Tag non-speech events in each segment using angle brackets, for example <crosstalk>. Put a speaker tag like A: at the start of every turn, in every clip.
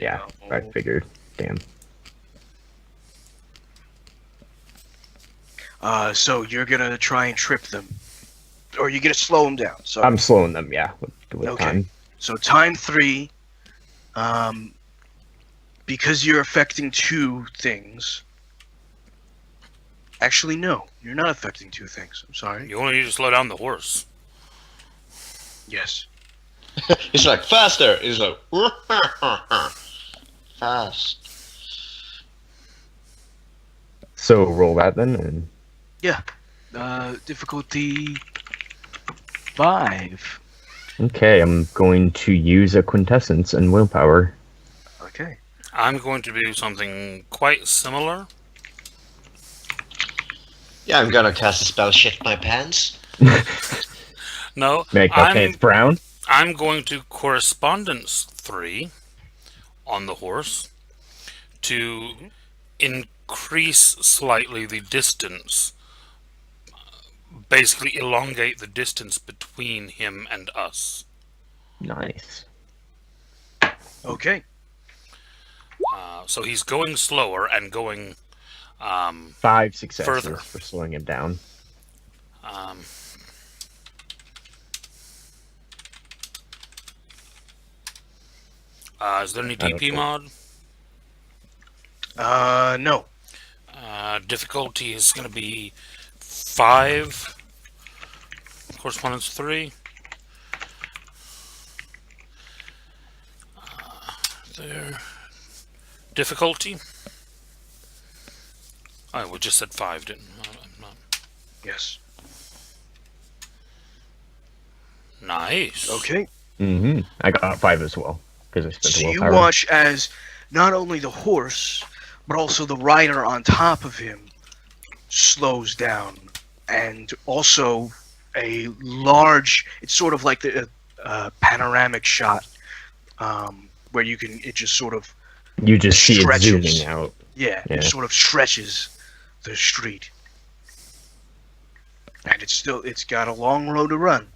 A: Yeah,
B: Oh.
A: I figured. Damn.
B: Uh, so you're gonna try and trip them, or you're gonna slow them down. So,
A: I'm slowing them, yeah, with, with
B: Okay.
A: time.
B: so time three, um, because you're affecting two things. Actually, no, you're not affecting two things. I'm sorry.
C: You only need to slow down the horse.
B: Yes.
D: He's like, faster! He's like, <laughs> fast.
A: So roll that then, and
B: Uh, difficulty five.
A: okay, I'm going to use a quintessence and willpower.
B: Okay.
C: I'm going to do something quite similar.
D: Yeah, I'm gonna cast a spell, shit my pants.
C: No,
A: Make my
C: I'm,
A: pants brown.
C: I'm going to correspondence three on the horse to increase slightly the distance, basically elongate the distance between him and us.
A: Nice.
B: Okay.
C: Uh, so he's going slower and going. Um,
A: Five successes
C: Further.
A: for slowing him down.
C: um, uh, is there any
A: I don't
C: DP
A: know.
C: mod?
B: Uh, no.
C: Uh, difficulty is going to be five. Correspondence three. Uh, there. Difficulty. Oh, we just said five, didn't we? Oh, I'm not-
B: Yes.
C: Nice.
B: Okay.
A: Mm-hmm. I got five as well because I spent
B: So
A: the
B: you
A: willpower.
B: watch as not only the horse, but also the rider on top of him slows down, and also a large. It's sort of like the uh, uh, panoramic shot, um, where you can. It just sort of
A: You just see it
B: stretches.
A: zooming out.
B: yeah,
A: Yeah.
B: it sort of stretches the street, and it's still. It's got a long road to run.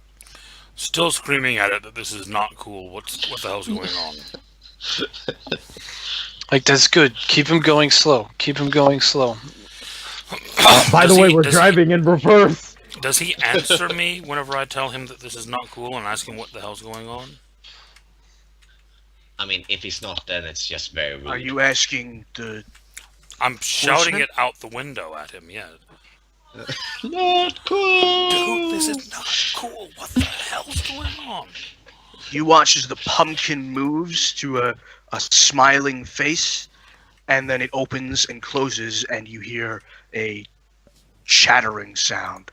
C: Still screaming at it that this is not cool. What's what the hell's going
A: <laughs>
C: on?
E: Like that's good. Keep him going slow. Keep him going slow.
A: Uh, By
C: Does
A: the way,
C: he-
A: we're
C: does he-
A: driving in reverse. <laughs>
C: Does he answer me whenever I tell him that this is not cool and ask him what the hell's going on?
D: I mean, if he's not, then it's just very rude.
B: Are you asking the?
C: I'm shouting
B: Horseman?
C: it out the window at him, yeah.
D: not cool?
C: Dude, this is not cool. What the hell's going on?
B: You watch as the pumpkin moves to a, a smiling face, and then it opens and closes, and you hear a chattering sound.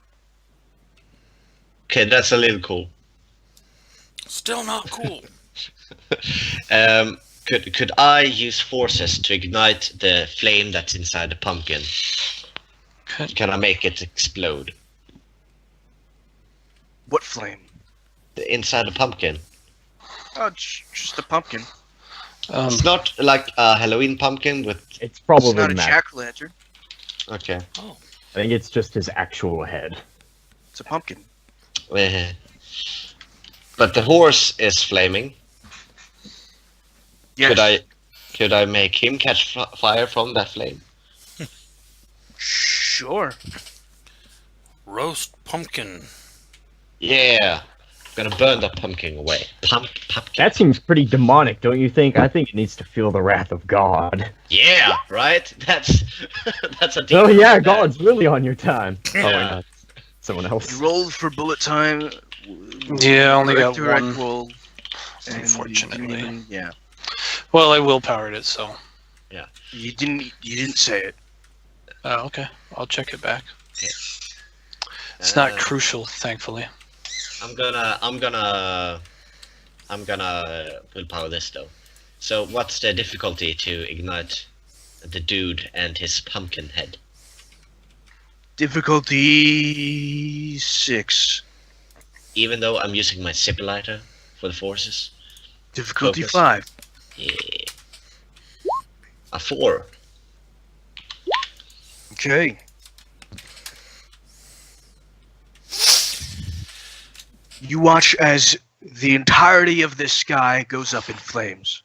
D: Okay, that's a little cool.
C: Still not cool.
D: Um, could could I use forces to ignite the flame that's inside the pumpkin?
E: Okay.
D: Can I make it explode?
B: What flame?
D: The inside the pumpkin.
B: Oh, j- just a pumpkin.
E: Um,
D: It's not like a Halloween pumpkin with.
A: It's probably
B: It's not a
A: Mac.
B: jack lantern.
D: Okay. <laughs>
A: I think it's just his actual head.
B: It's a pumpkin.
D: Eh. but the horse is flaming.
B: Yes.
D: Could I? Could I make him catch f- fire from that flame?
B: Sure.
C: Roast pumpkin.
D: Yeah. I'm gonna burn that pumpkin away. Pump, pumpkin.
A: That seems pretty demonic, don't you think? I think it needs to feel the wrath of God.
D: Yeah. Right. <laughs> That's that's a.
A: Oh
D: demon
A: yeah,
D: right there.
A: God's really on your time. Oh, wait,
D: Yeah.
A: no, it's someone
B: You
A: else.
B: rolled for bullet time.
E: yeah, I only got
B: Director, I'd
E: one.
B: roll, and you didn't
E: Unfortunately.
B: even- yeah.
E: Well, I willpowered it, so.
B: You didn't. You didn't say it.
E: Oh, okay. I'll check it back. It's not
D: Uh,
E: crucial, thankfully.
D: I'm gonna, I'm gonna, I'm gonna willpower this though. So, what's the difficulty to ignite the dude and his pumpkin head?
B: Difficulty six.
D: Even though I'm using my zipper lighter for the forces,
B: Difficulty
D: Focus.
B: five.
D: yeah, a four.
B: Okay. You watch as the entirety of this sky goes up in flames.